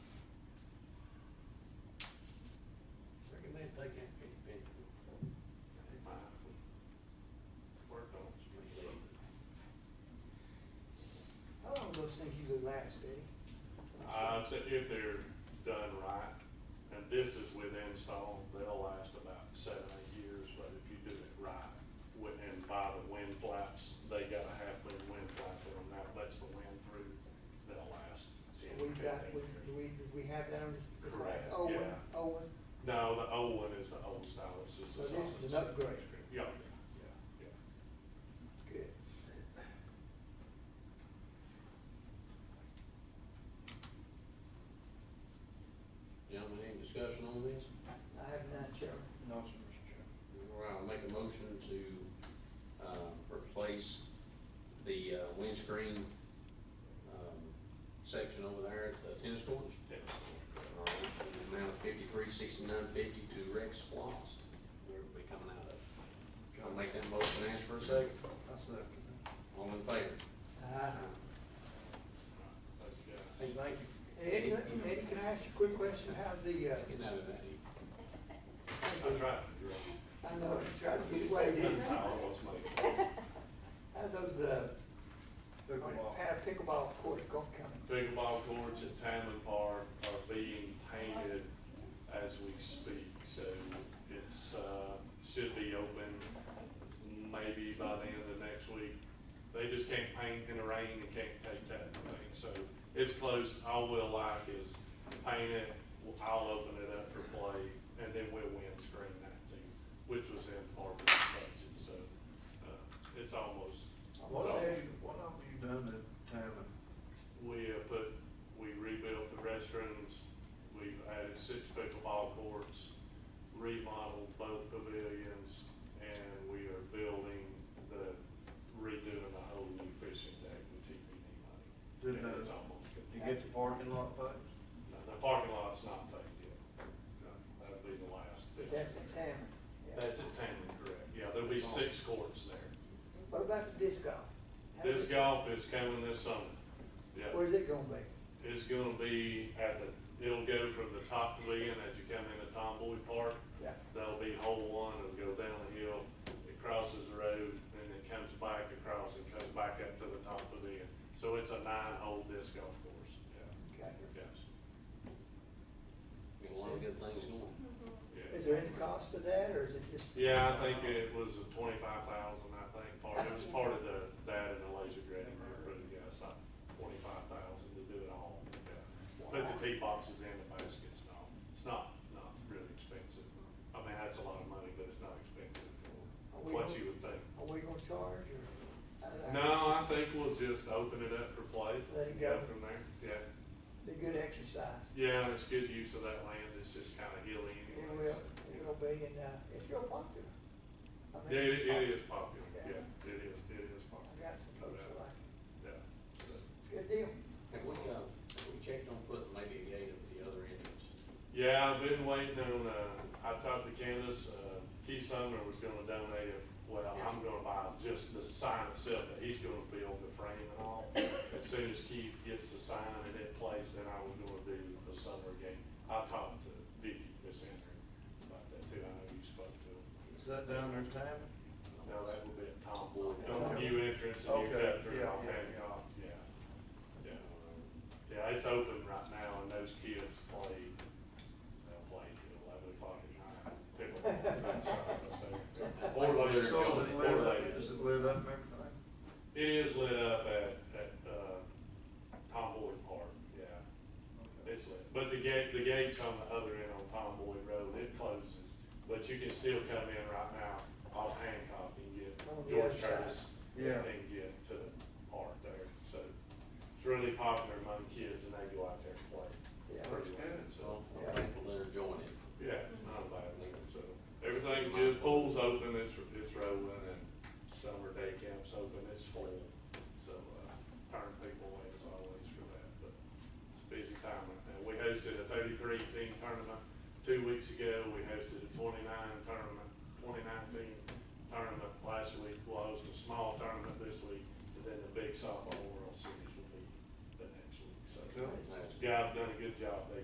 last day? Uh, so if they're done right, and this is with install, they'll last about seven, eight years, but if you do it right, wi- and by the wind flaps, they got a half-moon wind flap on them, that lets the wind through, they'll last So ten, we've fifteen got, we, do years. we, do we have that on this, this Correct, last Owen, yeah. Owen? No, the old one is the old style, it's just. So a this is an solid- upgrade, Yeah, yeah, yeah, yeah. good. Gentlemen, any discussion on this? I have none, Chairman. No, sir, Mr. Chairman. All right, I'll make a motion to, um, replace the uh, windscreen, um, section over there at the tennis courts. Tennis court, All right, in the amount of fifty-three sixty-nine fifty to Rex Splost, where it'll be coming out of. I'll make that motion, ask for a second. I second that. All in favor? Uh-huh. Uh, correct. Thank Eddie, you, guys. Hey, thank you. Eddie, can I ask you a quick question? How's the, uh, Get out of that. I tried, you're right. I know, I'm trying to get away, didn't I? I almost made it. How's those, uh, Pickleball. pa- pickleball courts gonna come? Pickleball courts at Tamman Park are being painted as we speak, so it's, uh, should be open maybe by the end of next week. They just can't paint in the rain and can't take that thing, so it's close, all we'll like is paint it, I'll open it up for play, and then we'll windscreen that too, which was in Barbara's budget, so, uh, it's almost. What it's have almost- you, what have you done to Tammin? we uh, put, we rebuilt the restrooms, we've added six pickleball courts, remodeled both pavilions, and we are building the, redoing the whole new fishing deck with TPD money. Did, And uh, It's almost You good. get the parking lot fixed? No, The parking lot's not paid yet. No, That'll be the last. But that's a Tamron. yeah. That's a Tamron, correct. Yeah, there'll be That's all. six courts there. What about the disc golf? How's This it- golf is coming this summer. Yeah. Where's it gonna be? is gonna be at the, it'll go from the top pavilion as you come into Tomboy Park. Yeah. That'll be hole one, it'll go down the hill, it crosses the road, and it comes back across and comes back up to the top pavilion. So it's a nine-hole disc golf course, yeah, Okay. yes, Got a lot of good things going. Is yeah. there any cost to that, or is it just? Yeah, I think it was a twenty-five thousand, I think, part, it was part of the, that and the laser grading, but yeah, it's not twenty-five thousand to do it all. yeah. Put the tee boxes in, the baskets, and all. it's not, not really expensive. I mean, that's a lot of money, but it's not expensive for what you would think. Are we gonna charge, or? I- I- No, I think we'll just open it up for play. Let it go. From there, yeah. Be good exercise. Yeah, and it's good use of that land, it's just kinda hilly It anyway. will, so, yeah. it will be, and, uh, it's real popular. I mean, Yeah, it, it I- is popular, yeah, it is, it is I popular, got some folks that like it. yeah, so. Good deal. Have we, uh, have we checked on putting maybe a gate at the other entrance? Yeah, I've been waiting on, uh, I talked to Candace, uh, Keith Sumner was gonna donate it, well, I'm gonna buy just the sign itself, but he's gonna build the frame and all. As soon as Keith gets the sign and it placed, then I was gonna do the summer game. I talked to Vicky, Miss Andrew, about that too, I know you spoke to him. Is that down there Tammin? Now, that would be a Tom Boyd, on the new entrance, and you Okay, cut through yeah, off yeah, Hancock, yeah. Yeah, yeah, it's open right now, and those kids play, they'll play till eleven o'clock at night. Pickleball. Or later. So So is it lit up, Or- is it lit up and everything? It is lit up at, at, uh, Tom Boyd Park, yeah, Okay. it's lit, but the gate, the gate's on the other end on Tom Boyd Road, it closes, but you can still come in right now off Hancock and On get the other George side. Curtis. Yeah. And get to the park there, so it's really popular among kids and they go out there and play. Yeah. Pretty That's well, So, good. So, I'm thankful they're enjoying it. yeah, it's not a bad thing, so everything's good, pool's open, it's, it's rolling and summer day camp's open, it's full. So, uh, turn people away as always for that, but it's a busy time right now. We hosted a thirty-three team tournament two weeks ago, we hosted a twenty-nine tournament, twenty-nine team tournament last week, we'll host a small tournament this week, and then the big softball world series will be the next week, so. Cool. That's- Yeah, I've done a good job, they